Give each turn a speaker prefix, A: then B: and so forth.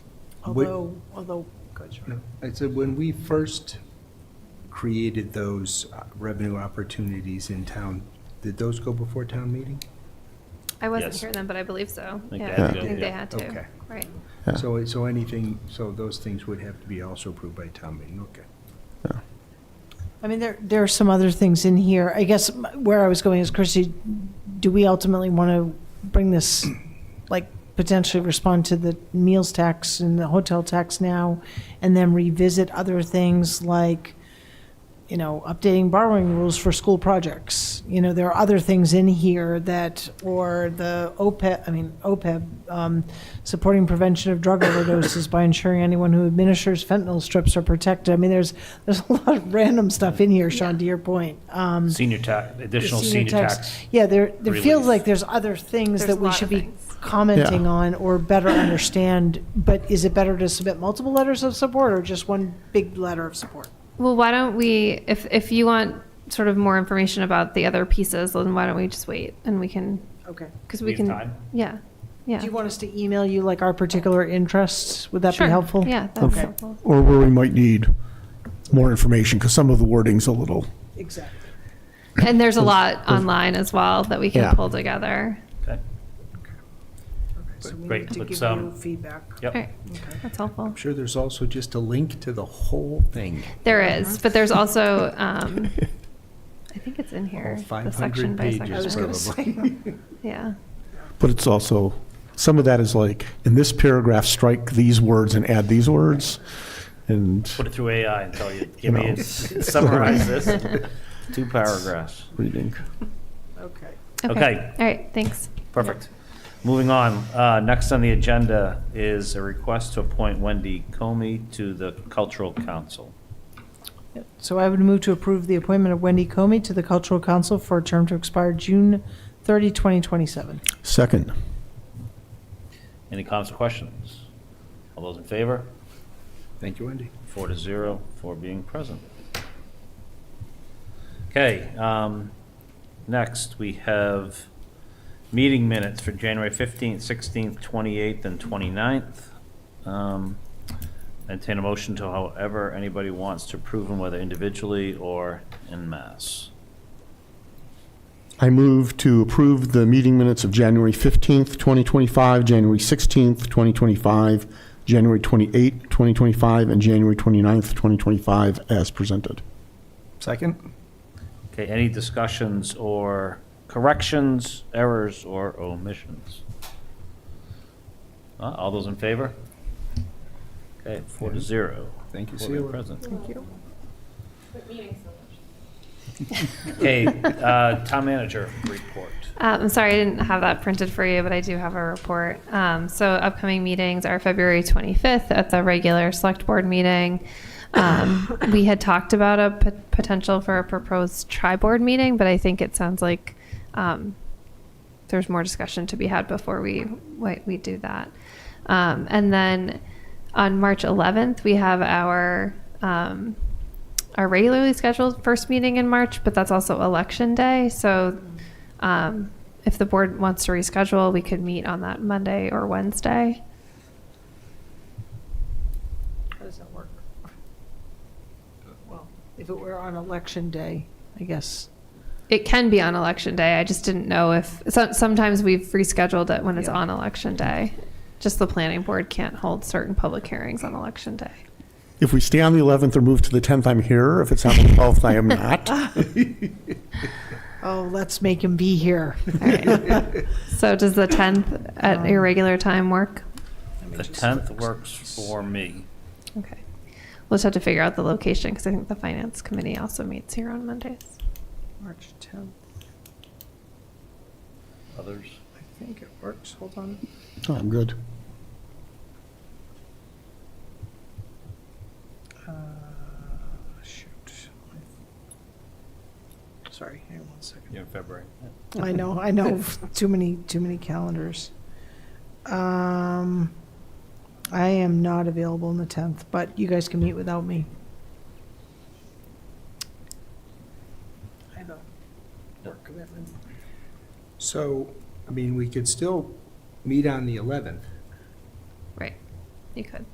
A: Although, although, good, sorry.
B: No, I said, when we first created those uh, revenue opportunities in town, did those go before town meeting?
C: I wasn't
D: Yes.
C: here then, but I believe so.
D: think
C: yeah,
D: they
C: I
D: did,
C: think they
D: yeah.
C: had to.
B: Okay.
C: Right.
E: Yeah.
B: So, so anything, so those things would have to be also approved by town meeting, okay.
A: I mean, there, there are some other things in here. I guess m- where I was going is, Chrissy, do we ultimately want to bring this, like, potentially respond to the meals tax and the hotel tax now, and then revisit other things like, you know, updating borrowing rules for school projects? You know, there are other things in here that, or the OPEB, I mean, OPEB, um, supporting prevention of drug overdoses by ensuring anyone who administers fentanyl strips are protected. I mean, there's, there's a lot of random stuff in here, Sean, to your point. Um,
D: Senior tax, additional
A: the
D: senior tax.
A: Yeah, there, there feels
D: relief.
A: like there's other things
C: There's
A: that
C: a
A: we
C: lot
A: should
C: of
A: be
C: things.
A: commenting
E: Yeah.
A: on or better understand. But is it better to submit multiple letters of support or just one big letter of support?
C: Well, why don't we, if, if you want sort of more information about the other pieces, then why don't we just wait and we can,
A: Okay.
C: because
D: We
C: we
D: have
C: can.
D: time?
C: Yeah, yeah.
A: Do you want us to email you like our particular interests? Would that
C: Sure.
A: be helpful?
C: Yeah, that's
A: Okay.
C: helpful.
E: Or where we might need more information, because some of the wording's a little,
A: Exactly.
C: And there's a lot online as well that we
E: Yeah.
C: can pull together.
D: Okay.
A: So we
D: Great,
A: need to
D: let's,
A: give
D: um,
A: you feedback.
C: All right,
D: Yep.
C: that's helpful.
B: I'm sure there's also just a link to the whole thing,
C: There is, but there's also, um, I think it's in here,
B: all
C: the
B: 500
C: section by
B: pages.
A: I was
C: section.
A: gonna
B: probably.
C: Yeah,
E: but it's also, some of that is like, in this paragraph, strike these words and add these words, and
D: Put it through AI and tell you,
E: You
D: give me,
E: know.
D: a- summarize this. in Two paragraphs.
E: reading.
A: Okay.
D: Okay.
C: All right, thanks.
D: Perfect. Moving on, uh, next on the agenda is a request to appoint Wendy Comey to the Cultural Council.
A: So I would move to approve the appointment of Wendy Comey to the Cultural Council for a term to expire June 30, 2027.
E: Second,
D: Any comments or questions? All those in favor?
B: Thank you, Wendy.
D: Four to zero for being present. Okay, um, next, we have meeting minutes for January 15th, 16th, 28th, and 29th. Um, Entertain a motion to however anybody wants to approve them, whether individually or en masse.
E: I move to approve the meeting minutes of January 15th, 2025, January 16th, 2025, January 28th, 2025, and January 29th, 2025, as presented.
B: Second?
D: Okay, any discussions or corrections, errors, or omissions? Uh, All those in favor? Okay, four to zero.
B: Thank you,
D: For being
B: Sheila.
D: present.
A: Thank you.
D: Okay, uh, town manager report.
C: Uh, I'm sorry I didn't have that printed for you, but I do have a report. Um, so upcoming meetings are February 25th at the regular select board meeting. Um, we had talked about a p- potential for a proposed tri-board meeting, but I think it sounds like um, there's more discussion to be had before we we, we do that. Um, and then on March 11th, we have our um, our regularly scheduled first meeting in March, but that's also election day. So um, if the board wants to reschedule, we could meet on that Monday or Wednesday.
A: How does that work? Well, if it were on election day, I guess.
C: It can be on election day. I just didn't know if so, sometimes we've rescheduled it when it's
A: Yeah.
C: on election day. Just the planning board can't hold certain public hearings on election day.
E: If we stay on the 11th or move to the 10th, I'm here. If it's on the 12th, I am not.
A: Oh, let's make him be here.
C: All right. so does the 10th at your regular time work?
D: The 10th works for me.
C: Okay. We'll just have to figure out the location because I think the finance committee also meets here on Mondays.
A: March 10th,
D: Others?
A: I think it works. Hold on.
E: Oh, I'm good.
A: Uh, Shoot. Sorry, hang on one second.
D: Yeah, February.
A: I know, I know, too many, too many calendars. Um, I am not available on the 10th, but you guys can meet without me. I have a work commitment.
B: So, I mean, we could still meet on the 11th.
C: Right. You could.